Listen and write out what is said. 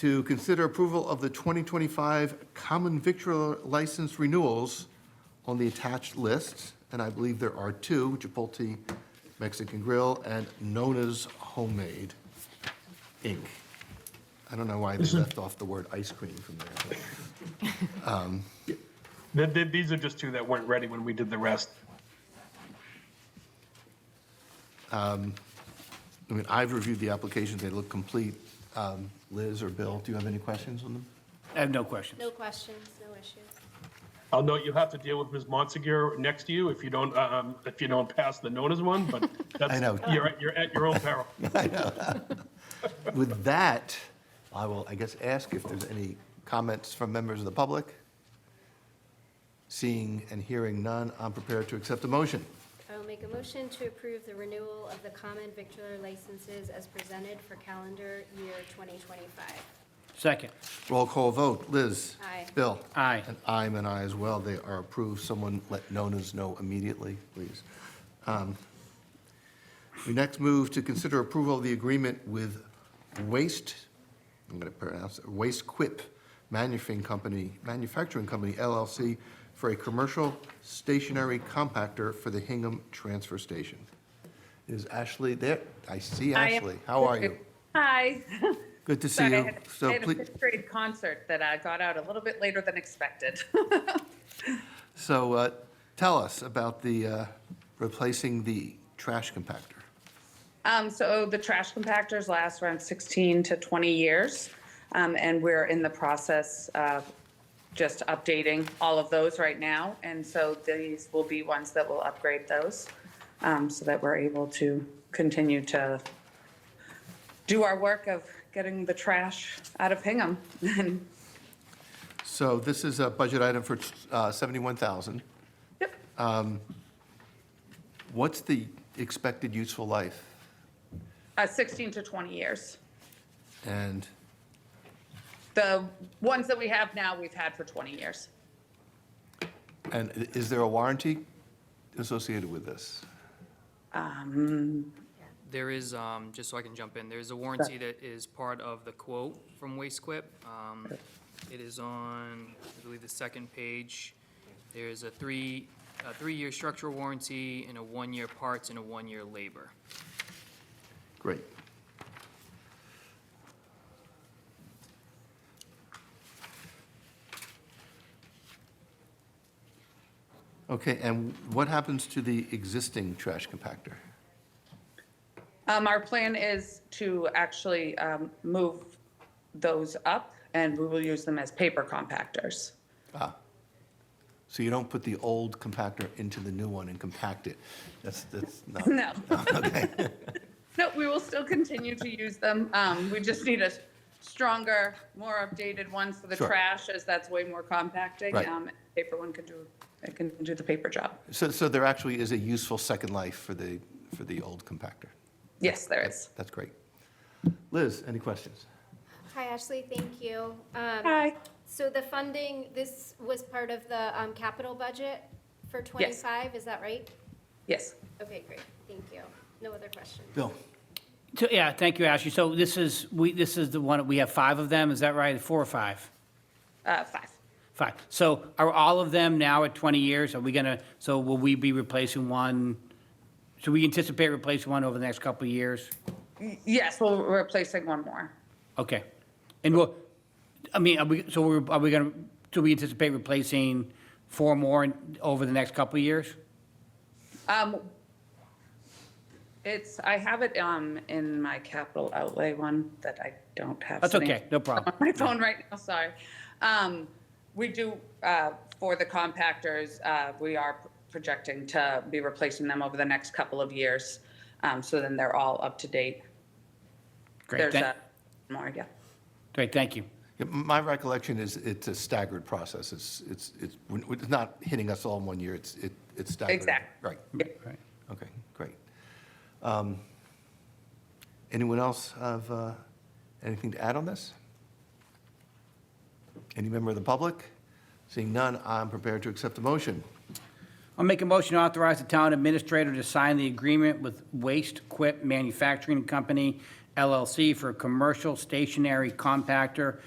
to consider approval of the 2025 common victular license renewals on the attached list, and I believe there are two, Chipotle Mexican Grill and Nona's Homemade Inc. I don't know why they left off the word ice cream from there. but- Th- th- These are just two that weren't ready when we did the rest. I mean, I've reviewed the applications, they look complete. Um, Liz or Bill, do you have any questions on them? I have no questions. No questions, no issues. I'll note you'll have to deal with Ms. Montsegur next to you if you don't, um, if you don't pass the notice one, but that's, I know. you're, at- you're at your own peril. With that, I will, I guess, ask if there's any comments from members of the public. Seeing and hearing none, I'm prepared to accept a motion. I will make a motion to approve the renewal of the common victular licenses as presented for calendar year 2025. Second, Roll call vote, Liz. Aye. Bill. Aye. And I'm an aye as well, they are approved. Someone let Nona's know immediately, please. Um, We next move to consider approval of the agreement with Waste, I'm going to pronounce it, Waste Quip Manufacturing Company, Manufacturing Company LLC for a commercial stationary compactor for the Hingham Transfer Station. Is Ashley there? I see I am. Ashley. How are you? Hi. Good to see Sorry, I you. had- I So had a please. fifth grade concert that I got out a little bit later than expected. So uh, tell us about the uh, replacing the trash compactor. Um, so the trash compactors last around 16 to 20 years. Um, and we're in the process of just updating all of those right now. And so these will be ones that will upgrade those um, so that we're able to continue to do our work of getting the trash out of Hingham and So this is a budget item for uh, 71,000. Yep. Um, What's the expected useful life? uh, 16 to 20 years. And, The ones that we have now, we've had for 20 years. and i- is there a warranty associated with this? Um, There is, um, just so I can jump in, there's a warranty that is part of the quote from Waste Quip. Um, It is on, I believe, the second page. There's a three, a three-year structural warranty and a one-year parts and a one-year labor. Great. Okay, and what happens to the existing trash compactor? Um, Our plan is to actually um, move those up, and we will use them as paper compactors. So you don't put the old compactor into the new one and compact it? That's, that's not, No. No, we will still continue to use them. Um, We just need a stronger, more updated one for the Sure. trash, as that's way more compacting. Right. Um, Paper one can do, it can do the paper job. so, so there actually is a useful second life for the, for the old compactor? Yes, there is. That's great. Liz, any questions? Hi, Ashley, thank you. Um, Hi. So the funding, this was part of the um, capital budget for 25, is that right? Yes. Okay, great, thank you. No other questions. Bill? So, yeah, thank you, Ashley. So this is, we, this is the one, we have five of them, is that right? Four or five? Uh, Five. Five. So are all of them now at 20 years? Are we gonna, so will we be replacing one? Should we anticipate replacing one over the next couple of years? Yes, well, we're replacing one more. Okay. And we'll, I mean, are we, so we're, are we gonna, do we anticipate replacing four more in- over the next couple of years? Um, It's, I have it um, in my capital outlay one that I don't have. That's sitting okay, no problem. On my phone right now, sorry. Um, We do, uh, for the compactors, uh, we are projecting to be replacing them over the next couple of years. Um, So then they're all up to date. Great, There's thank, a more, yeah. great, thank you. Yeah, My recollection is it's a staggered process. It's, it's, it's it's not hitting us all in one year. It's, it- it's staggered. Exactly. Right. Yeah. Right. Okay, great. Um, Anyone else have uh, anything to add on this? Any member of the public? Seeing none, I'm prepared to accept the motion. I'll make a motion to authorize the town administrator to sign the agreement with Waste Quip Manufacturing Company LLC for a commercial stationary compactor